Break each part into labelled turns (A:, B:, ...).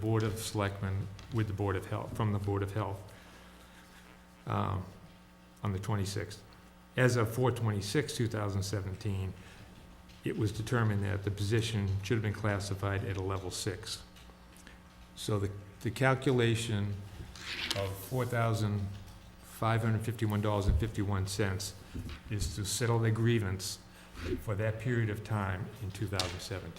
A: Board of Selectmen with the Board of Health, from the Board of Health um, on the 26th. As of 4/26, 2017, it was determined that the position should have been classified at a level six. So the, the calculation of $4,551.51 is to settle the grievance for that period of time in 2017.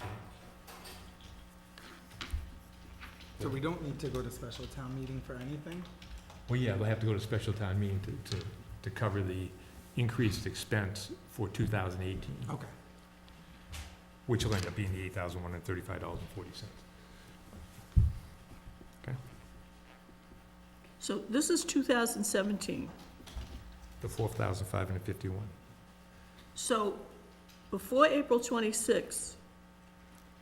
B: So we don't need to go to special town meeting for anything?
A: Well, yeah, they'll have to go to special town meeting to, to, to cover the increased expense for two thousand eighteen,
B: Okay.
A: which will end up being the eight thousand one hundred thirty-five dollars and forty cents.
C: So this is 2017.
A: The four thousand five hundred fifty-one.
C: So before April 26,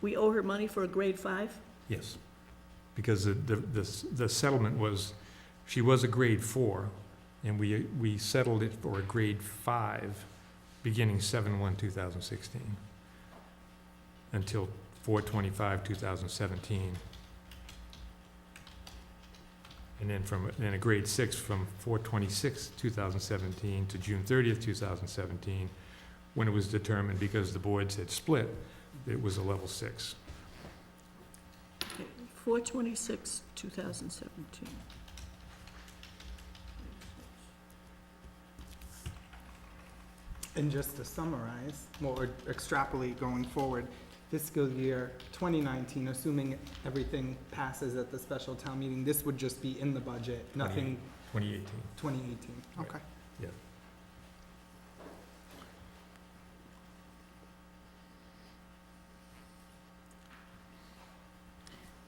C: we owe her money for a grade five?
A: Yes. Because the, the, the s- the settlement was, she was a grade four, and we, we settled it for a grade five, beginning seven one two thousand sixteen, until four twenty-five two thousand seventeen. And then from, then a grade six from four twenty-six two thousand seventeen to June thirtieth two thousand seventeen, when it was determined, because the boards had split, it was a level six.
C: 426, 2017.
B: And just to summarize, well, or extrapolate going forward, fiscal year 2019, assuming everything passes at the special town meeting, this would just be in the budget, nothing
A: Twenty eighteen.
B: 2018.
A: Right.
B: Okay.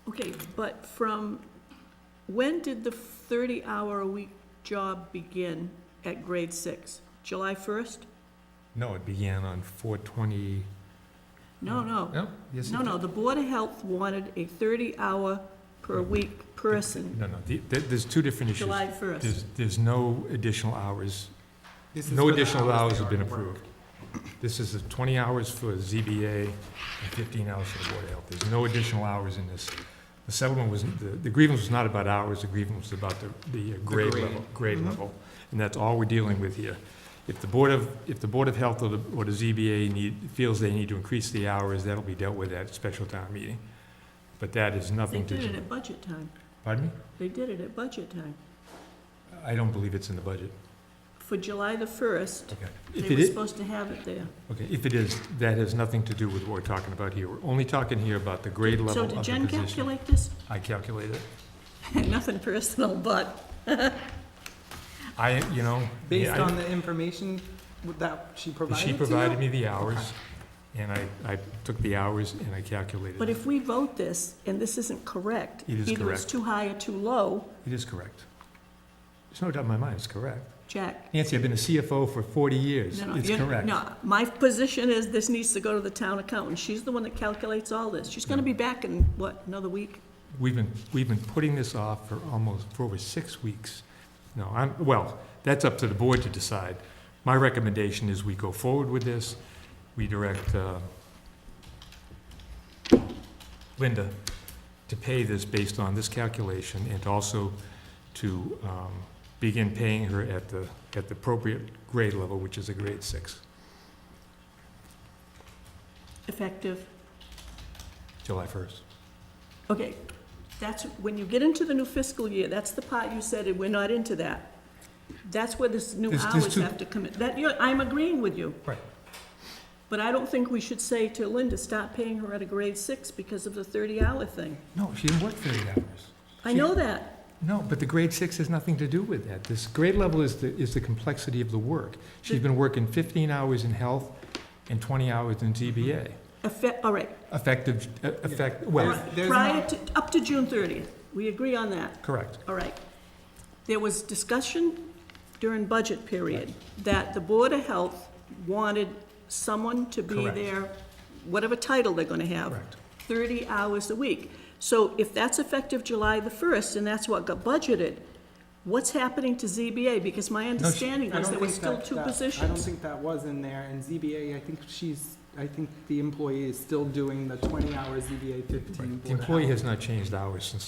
C: Okay, but from, when did the 30-hour-a-week job begin at grade six? July 1st?
A: No, it began on four twenty.
C: No, no.
A: No, yes. it
C: No, no, the Board of Health wanted a 30-hour-per-week
A: did.
C: person,
A: No, no, the- there, there's two different issues.
C: July 1st.
A: There's, there's no additional hours,
B: This is
A: no
B: for the
A: additional hours
B: they
A: have been
B: already work.
A: approved. This is the twenty hours for ZBA and fifteen hours for the Board of Health. There's no additional hours in this. The settlement was, the the grievance was not about hours, the grievance was about the, the uh, grade Mm-hmm.
B: grade.
A: level, grade
B: Mhm.
A: level. And that's all we're dealing with here. If the Board of, if the Board of Health or the, or the ZBA need, feels they need to increase the hours, that'll be dealt with at special town meeting. But that is
C: They
A: nothing to
C: did it
A: do.
C: at budget time.
A: Pardon me?
C: They did it at budget time.
A: I don't believe it's in the budget.
C: For July the 1st,
A: Okay. If
C: They
A: it
C: were
A: is,
C: supposed to have it there.
A: okay, if it is, that has nothing to do with what we're talking about here. We're only talking here about the grade level
C: So
A: of the
C: did Jen
A: position.
C: calculate this?
A: I calculated it.
C: Nothing personal, but
A: I, you know,
B: Based
A: yeah,
B: on the information that she
A: I-
B: provided
A: she
B: to you?
A: provided me the hours, and I, I took the hours and I calculated.
C: But
A: it.
C: if we vote this and this isn't correct,
A: It is
C: either it's
A: correct.
C: too high or too low,
A: It is correct. There's no doubt in my mind, it's correct.
C: Jack.
A: Nancy, I've been a CFO for 40 years.
C: no, no,
A: It's
C: you-
A: correct.
C: No, my position is this needs to go to the town accountant. She's the one that calculates all this. She's gonna be back in, what, another week?
A: We've been, we've been putting this off for almost, for over six weeks. No, I'm, well, that's up to the board to decide. My recommendation is we go forward with this. We direct uh, Linda to pay this based on this calculation and also to um, begin paying her at the, at the appropriate grade level, which is a grade six,
C: Effective.
A: July 1st.
C: Okay, that's, when you get into the new fiscal year, that's the part you said, and we're not into that. That's where this new
A: There's- there's
C: hours
A: two-
C: have to come in. That, you're, I'm agreeing with you.
A: Right.
C: But I don't think we should say to Linda, stop paying her at a grade six because of the thirty-hour thing.
A: No, she didn't work 30 hours.
C: I
A: She-
C: know that.
A: No, but the grade six has nothing to do with that. This grade level is the, is the complexity of the work. She's been working fifteen hours in health and twenty hours in TBA.
C: Effect, all right,
A: Effective, uh, effect, well,
B: There's- there's
C: prior
B: not-
C: to, up to June thirtieth, we agree on that,
A: correct.
C: all right. There was discussion during budget period that the Board of Health wanted someone to be
A: Correct.
C: there, whatever title they're gonna have.
A: Correct.
C: Thirty hours a week. So if that's effective July the first, and that's what got budgeted, what's happening to ZBA? Because my understanding
B: I
C: was
B: don't
C: there were
B: think
C: still
B: that-
C: two
B: that-
C: positions.
B: I don't think that was in there, and ZBA, I think she's, I think the employee is still doing the twenty hours ZBA fifteen Board of
A: The employee
B: Health.
A: has not changed hours since